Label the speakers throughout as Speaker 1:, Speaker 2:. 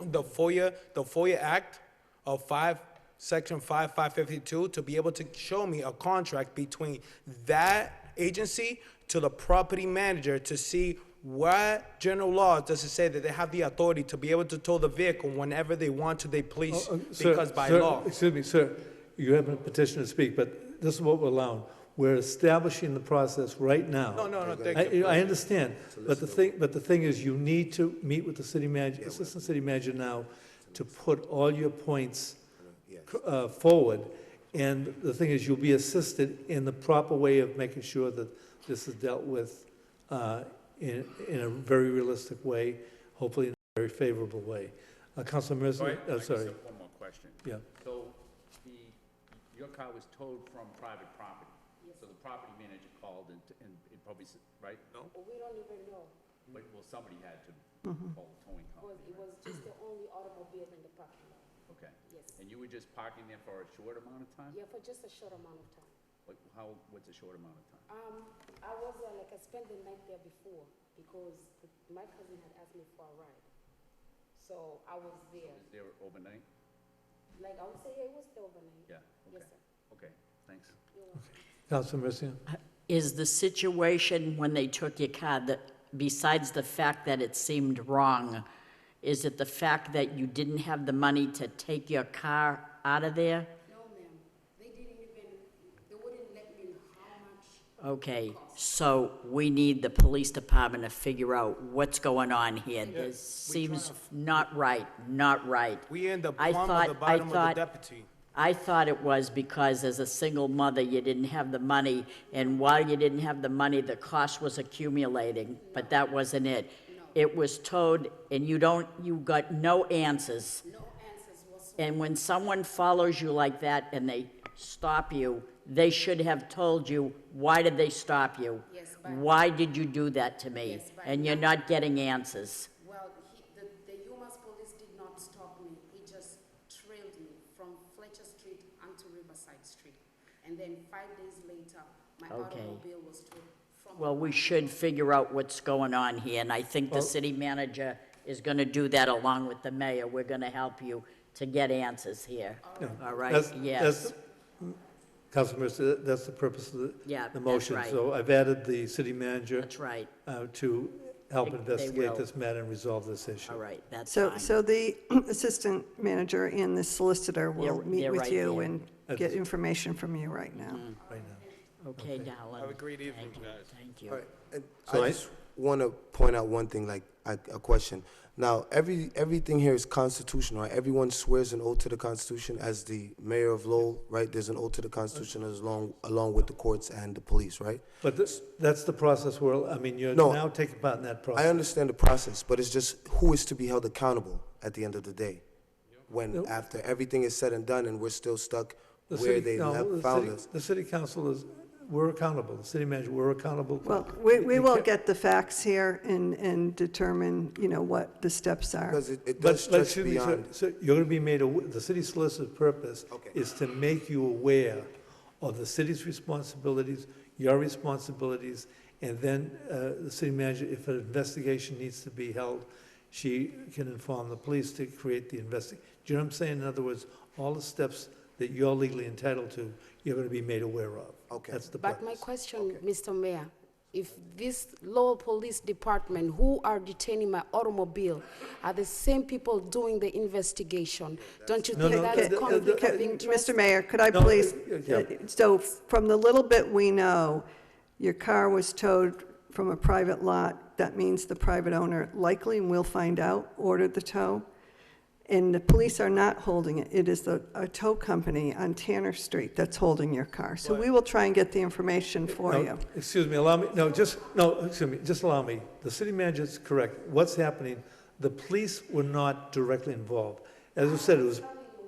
Speaker 1: the FOIA, the FOIA Act of five, section five, five fifty-two, to be able to show me a contract between that agency to the property manager to see what general laws does it say that they have the authority to be able to tow the vehicle whenever they want to, they please,
Speaker 2: Uh, sir-
Speaker 1: because by
Speaker 2: sir,
Speaker 1: law.
Speaker 2: Excuse me, sir, you have a petition to speak, but this is what we're allowing. We're establishing the process right now.
Speaker 1: No, no, no, thank
Speaker 2: I-
Speaker 1: you.
Speaker 2: I understand, but the thing, but the thing is, you need to meet with the city manager, assistant city manager now to put all your points uh, forward. And the thing is, you'll be assisted in the proper way of making sure that this is dealt with uh, in, in a very realistic way, hopefully in a very favorable way. Uh, Councilor
Speaker 3: So I-
Speaker 2: Mersley,
Speaker 3: I
Speaker 2: I'm
Speaker 3: just have
Speaker 2: sorry,
Speaker 3: One more question.
Speaker 2: yeah.
Speaker 3: So the, your car was towed from private property? So the property manager called and, and it probably, s- right? No.
Speaker 4: We don't even know,
Speaker 3: But, well, somebody had to call the towing company,
Speaker 4: because it Mm-hmm. was just the only automobile in the parking lot,
Speaker 3: okay?
Speaker 4: yes.
Speaker 3: And you were just parking there for a short amount of time?
Speaker 4: Yeah, for just a short amount of time.
Speaker 3: What, how, what's a short amount of time?
Speaker 4: Um, I was, uh, like, I spent the night there before, because the- my cousin had asked me for a ride. So I was there,
Speaker 3: Was there overnight?
Speaker 4: like, I would say, yeah, it was still overnight.
Speaker 3: Yeah, okay,
Speaker 4: Yes, sir.
Speaker 3: okay, thanks.
Speaker 4: You're welcome.
Speaker 2: Councilor Mercia?
Speaker 5: Is the situation when they took your car, that, besides the fact that it seemed wrong, is it the fact that you didn't have the money to take your car out of there?
Speaker 4: No, ma'am, they didn't even, they wouldn't let me know how much
Speaker 5: Okay, so we need the police department to figure out what's going on here. This seems not right, not right.
Speaker 1: We in the
Speaker 5: I
Speaker 1: plumb
Speaker 5: thought-
Speaker 1: of the
Speaker 5: I
Speaker 1: bottom of the
Speaker 5: thought-
Speaker 1: deputy.
Speaker 5: I thought it was because as a single mother, you didn't have the money, and while you didn't have the money, the cost was accumulating, but that wasn't it. It was towed, and you don't, you got no answers.
Speaker 4: no answers whatsoever.
Speaker 5: And when someone follows you like that and they stop you, they should have told you, why did they stop you?
Speaker 4: Yes, but-
Speaker 5: Why did you do that to me?
Speaker 4: Yes, but-
Speaker 5: And you're not getting answers.
Speaker 4: Well, he, the, the UMass police did not stop me. He just trailed me from Fletcher Street onto Riverside Street. And then five days later, my
Speaker 5: Okay.
Speaker 4: automobile was towed from.
Speaker 5: Well, we should figure out what's going on here, and I think the city manager is going to do that along with the mayor. We're going to help you to get answers here. All right,
Speaker 2: That's-
Speaker 5: yes.
Speaker 2: that's- Councilor Mercia, that's the purpose of the.
Speaker 5: Yeah,
Speaker 2: The
Speaker 5: that's
Speaker 2: motion.
Speaker 5: right.
Speaker 2: So I've added the city manager
Speaker 5: That's right,
Speaker 2: uh, to help
Speaker 5: They- they
Speaker 2: investigate
Speaker 5: will.
Speaker 2: this matter and resolve this issue.
Speaker 5: all right, that's
Speaker 6: So,
Speaker 5: fine.
Speaker 6: so the assistant manager and the solicitor will
Speaker 5: They're- they're
Speaker 6: meet
Speaker 5: right Mm-hmm.
Speaker 6: with you
Speaker 5: there.
Speaker 6: and get information from you right now.
Speaker 2: right now.
Speaker 5: Okay, Dallin.
Speaker 1: Have a great evening,
Speaker 5: Thank you,
Speaker 1: guys.
Speaker 5: Thank you.
Speaker 7: All right, and
Speaker 2: So I-
Speaker 7: I just want to point out one thing, like, a, a question. Now, every, everything here is constitutional, right? Everyone swears an oath to the Constitution as the mayor of Lowell, right? There's an oath to the Constitution as long, along with the courts and the police, right?
Speaker 2: But this- that's the process where, I mean, you're
Speaker 7: No.
Speaker 2: now taking part in that
Speaker 7: I
Speaker 2: process.
Speaker 7: understand the process, but it's just who is to be held accountable at the end of the day? When, after everything is said and done and we're still stuck
Speaker 2: The
Speaker 7: where
Speaker 2: city-
Speaker 7: they
Speaker 2: no,
Speaker 7: left-
Speaker 2: the
Speaker 7: found
Speaker 2: city-
Speaker 7: us?
Speaker 2: The city council is, we're accountable, the city manager, we're accountable.
Speaker 6: Well, we, we will
Speaker 2: can't-
Speaker 6: get the facts here and, and determine, you know, what the steps are.
Speaker 7: Because it, it
Speaker 2: But,
Speaker 7: does
Speaker 2: but excuse
Speaker 7: stretch
Speaker 2: me, sir,
Speaker 7: beyond,
Speaker 2: sir, you're going to be made, aw- the city solicitor's purpose
Speaker 7: Okay.
Speaker 2: is to make you aware of the city's responsibilities, your responsibilities, and then uh, the city manager, if an investigation needs to be held, she can inform the police to create the investi, do you know what I'm saying? In other words, all the steps that you're legally entitled to, you're going to be made aware of.
Speaker 7: Okay.
Speaker 2: That's the
Speaker 4: But my
Speaker 2: purpose.
Speaker 4: question, Mr. Mayor, if this Lowell Police Department who are detaining my automobile are the same people doing the investigation, don't you
Speaker 2: No,
Speaker 4: think
Speaker 2: no,
Speaker 4: that's
Speaker 6: uh,
Speaker 2: the- the-
Speaker 4: conflict
Speaker 2: the-
Speaker 4: of interest?
Speaker 6: Mr. Mayor, could I
Speaker 2: No,
Speaker 6: please,
Speaker 2: uh, yeah.
Speaker 6: so from the little bit we know, your car was towed from a private lot. That means the private owner likely, and we'll find out, ordered the tow. And the police are not holding it. It is the, a tow company on Tanner Street that's holding your car. So we will try and get the information for
Speaker 2: No,
Speaker 6: you.
Speaker 2: Excuse me, allow me, no, just, no, excuse me, just allow me. The city manager's correct. What's happening, the police were not directly involved. As I said, it was,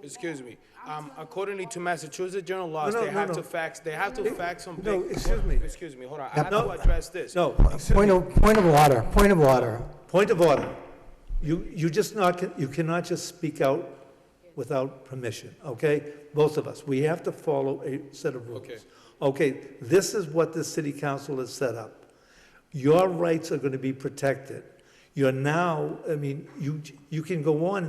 Speaker 1: Excuse me. Um, accordingly to Massachusetts general laws,
Speaker 2: No, no,
Speaker 1: they
Speaker 2: no,
Speaker 1: have
Speaker 2: no.
Speaker 1: to fax, they have to fax on.
Speaker 2: no,
Speaker 1: big-
Speaker 2: excuse me.
Speaker 1: Excuse me, hold on. I have
Speaker 2: No.
Speaker 1: to address this.
Speaker 2: no, excuse
Speaker 8: Point
Speaker 2: me,
Speaker 8: of, point of order, point of order.
Speaker 2: point of order. You, you just not, you cannot just speak out without permission, okay? Both of us, we have to follow a set of rules.
Speaker 1: Okay.
Speaker 2: Okay, this is what the city council has set up. Your rights are going to be protected. You're now, I mean, you, you can go on